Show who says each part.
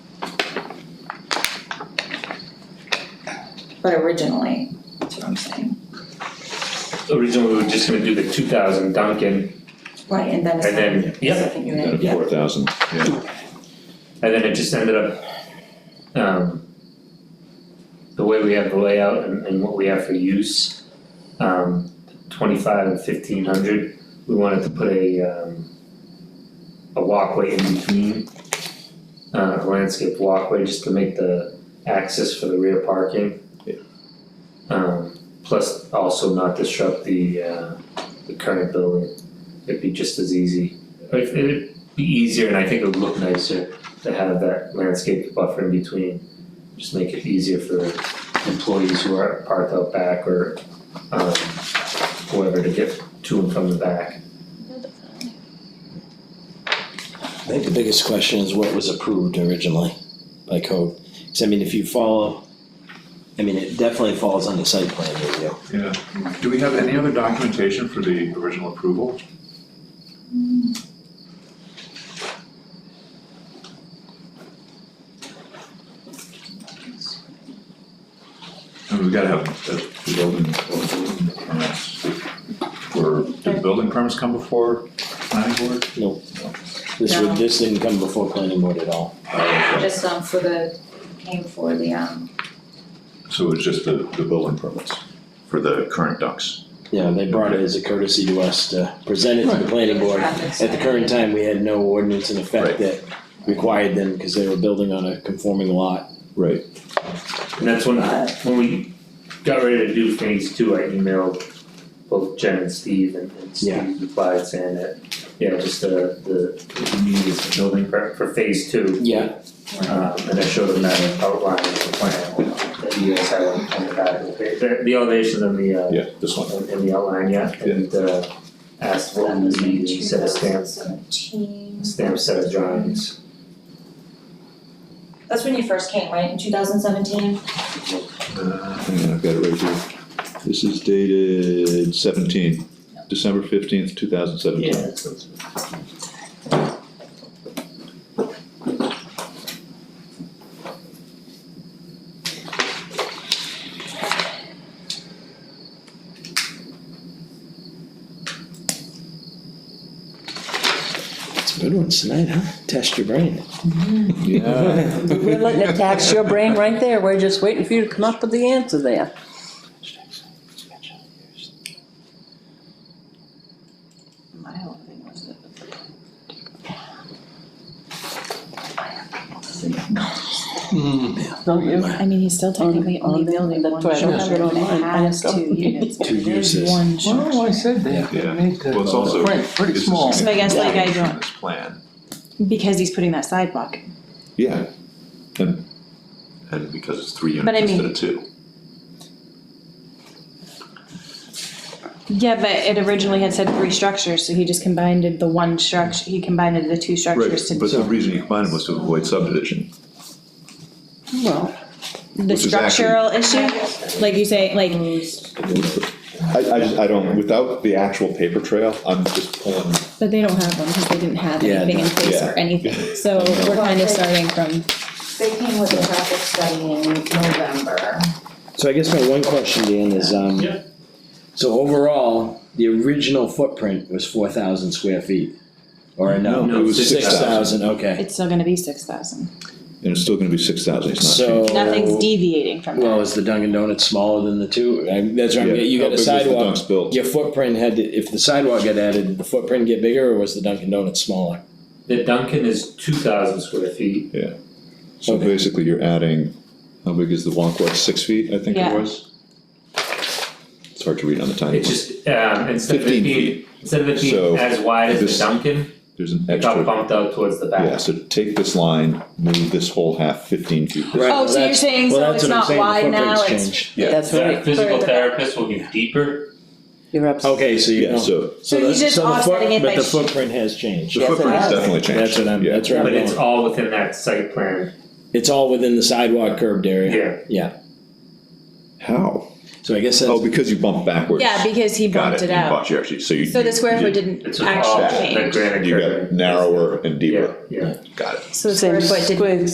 Speaker 1: but originally, that's what I'm saying.
Speaker 2: Originally, we were just gonna do the two thousand Duncan,
Speaker 1: Right, and then it's.
Speaker 2: And then-
Speaker 1: not-
Speaker 2: yeah.
Speaker 1: Second unit,
Speaker 2: Yeah.
Speaker 3: Four thousand, yeah.
Speaker 2: and then it just ended up, um, the way we have the layout and, and what we have for use, um, twenty-five and fifteen hundred, we wanted to put a, um, a walkway in between, uh, a landscape walkway, just to make the access for the rear parking.
Speaker 3: Yeah.
Speaker 2: Um, plus also not disrupt the, uh, the current building, it'd be just as easy, it, it'd be easier and I think it would look nicer to have that landscape buffer in between. Just make it easier for employees who are parked out back or um whoever to get to and from the back.
Speaker 4: I think the biggest question is what was approved originally by code. Because I mean, if you follow, I mean, it definitely falls under site plan review.
Speaker 3: Yeah. Do we have any other documentation for the original approval? And we've gotta have the the building, the building permits. Were, did the building permits come before planning board?
Speaker 4: This
Speaker 1: No.
Speaker 4: would, this didn't come before planning board at all.
Speaker 3: Uh,
Speaker 1: just um for the, came for the um,
Speaker 3: So it was just the, the building permits for the current ducks?
Speaker 4: Yeah, they brought it as a courtesy to us to present it to the planning board.
Speaker 1: traffic
Speaker 4: At the current
Speaker 1: study.
Speaker 4: time, we had no ordinance in
Speaker 3: Right.
Speaker 4: effect that required them because they were building on a conforming lot.
Speaker 3: Right.
Speaker 2: And that's when when we got ready to do phase two, I emailed both Jen and Steve and and
Speaker 4: Yeah.
Speaker 2: Steve replied saying that yeah, just the the what we need is the building permit for phase two.
Speaker 4: Yeah.
Speaker 2: Um and I showed them that outline of the plan that you guys had on on the back of the page, the the elevation and the uh
Speaker 3: Yeah, this one.
Speaker 2: in in the outline yet and uh asked what was needed, he said a stamp,
Speaker 1: Seventeen.
Speaker 2: stamp set of drawings.
Speaker 1: That's when you first came, right, in two thousand seventeen?
Speaker 3: Uh, hang on, I've got it right here. This is dated seventeen, December fifteenth, two thousand seventeen.
Speaker 4: It's good ones tonight, huh? Test your brain.
Speaker 5: We're letting it tax your brain right there. We're just waiting for you to come up with the answer there.
Speaker 6: Mm,
Speaker 5: Don't you?
Speaker 7: I mean, he's still technically
Speaker 5: On-
Speaker 7: only
Speaker 5: on-
Speaker 7: building
Speaker 5: that's
Speaker 7: one
Speaker 5: right,
Speaker 7: structure,
Speaker 5: that's right.
Speaker 7: and it has
Speaker 5: Go.
Speaker 7: two units, but
Speaker 4: Two
Speaker 7: it is
Speaker 4: uses.
Speaker 7: one structure.
Speaker 6: Well, I said they
Speaker 3: Yeah.
Speaker 6: made the.
Speaker 3: Well, it's also-
Speaker 6: Print, pretty
Speaker 3: It's a
Speaker 6: small.
Speaker 7: So I guess like I
Speaker 3: significant
Speaker 7: don't,
Speaker 3: This plan.
Speaker 7: because he's putting that sidewalk,
Speaker 3: Yeah. And, and because it's three
Speaker 7: But I
Speaker 3: units instead
Speaker 7: mean-
Speaker 3: of two.
Speaker 7: yeah, but it originally had said three structures, so he just combined it- the one structure, he combined it the two structures to.
Speaker 3: Right, but the reason you combined them was to avoid subdivision.
Speaker 7: Well. The
Speaker 3: Which is actually-
Speaker 7: structural issue, like you say, like, Mm.
Speaker 3: I, I just, I don't, without the actual paper trail, I'm just pulling.
Speaker 7: but they don't have one, because they didn't have
Speaker 4: Yeah,
Speaker 7: anything in place
Speaker 3: yeah.
Speaker 7: or anything, so we're kind of starting from,
Speaker 1: They came with a traffic study in November.
Speaker 4: So I guess my one question, Dan, is, um.
Speaker 2: Yeah.
Speaker 4: So overall, the original footprint was four thousand square feet, or no?
Speaker 2: No, it was
Speaker 4: Six
Speaker 3: 6,000.
Speaker 4: thousand, okay.
Speaker 7: it's still gonna be six thousand.
Speaker 3: And it's still gonna be six thousand, it's not
Speaker 4: So.
Speaker 3: changing.
Speaker 7: Nothing's deviating from
Speaker 4: Well,
Speaker 7: that.
Speaker 4: is the Dunkin' Donuts smaller than the two? I- That's right,
Speaker 3: Yeah,
Speaker 4: you
Speaker 3: how
Speaker 4: got a
Speaker 3: big was the
Speaker 4: sidewalk,
Speaker 3: dunks built?
Speaker 4: your footprint had, to- if the sidewalk got added, did the footprint get bigger or was the Dunkin' Donuts smaller?
Speaker 7: Oh,
Speaker 2: The Duncan is two thousand square feet,
Speaker 3: So
Speaker 4: Okay.
Speaker 3: basically, you're adding, how big is the walkway, six feet, I think it
Speaker 7: Yeah.
Speaker 3: was? It's hard to read on the tiny
Speaker 2: it's
Speaker 3: one,
Speaker 2: just um instead of it
Speaker 3: 15
Speaker 2: being, instead of it
Speaker 3: So,
Speaker 2: being as wide as
Speaker 3: this
Speaker 2: the Duncan,
Speaker 3: there's an
Speaker 2: it got
Speaker 3: extra,
Speaker 2: bumped out towards the back.
Speaker 3: yeah, so take this line, move this whole half fifteen feet. this
Speaker 4: Right,
Speaker 7: Oh,
Speaker 4: well,
Speaker 7: so you're
Speaker 4: that's-
Speaker 7: saying,
Speaker 4: well,
Speaker 7: so
Speaker 4: that's
Speaker 7: it's
Speaker 4: what I'm
Speaker 7: not
Speaker 4: saying, the
Speaker 7: wide now,
Speaker 4: footprints
Speaker 7: it's,
Speaker 4: changed.
Speaker 3: Yeah.
Speaker 5: That's
Speaker 2: The
Speaker 5: right.
Speaker 2: physical
Speaker 7: Further back.
Speaker 2: therapist will be deeper,
Speaker 5: You're up.
Speaker 4: Okay, so you
Speaker 3: Yeah,
Speaker 4: know, so
Speaker 3: so
Speaker 7: So
Speaker 4: the,
Speaker 7: he's just
Speaker 4: so the
Speaker 7: offsetting
Speaker 4: foot,
Speaker 7: it
Speaker 4: but
Speaker 7: by
Speaker 4: the
Speaker 7: sh-
Speaker 4: footprint has changed.
Speaker 3: the
Speaker 5: Yes, it
Speaker 3: footprint has
Speaker 5: has.
Speaker 3: definitely changed.
Speaker 4: That's what I'm,
Speaker 3: Yeah.
Speaker 4: that's where I'm
Speaker 2: but it's
Speaker 4: going.
Speaker 2: all within that site plan,
Speaker 4: It's all within the sidewalk curbed area.
Speaker 2: yeah.
Speaker 3: How?
Speaker 4: So I guess that's.
Speaker 3: Oh, because you bumped backwards.
Speaker 7: yeah, because he
Speaker 3: Got
Speaker 7: bumped
Speaker 3: it,
Speaker 7: it
Speaker 3: you
Speaker 7: out.
Speaker 3: bumped, you actually, so you.
Speaker 7: So the
Speaker 3: you-
Speaker 7: square
Speaker 3: you
Speaker 7: foot
Speaker 3: did-
Speaker 7: didn't
Speaker 2: It's all
Speaker 7: actually
Speaker 2: that
Speaker 7: change.
Speaker 2: granite
Speaker 3: You
Speaker 2: curve.
Speaker 3: got narrower and
Speaker 2: Yeah,
Speaker 3: deeper,
Speaker 2: yeah.
Speaker 3: got it.
Speaker 7: So the square foot didn't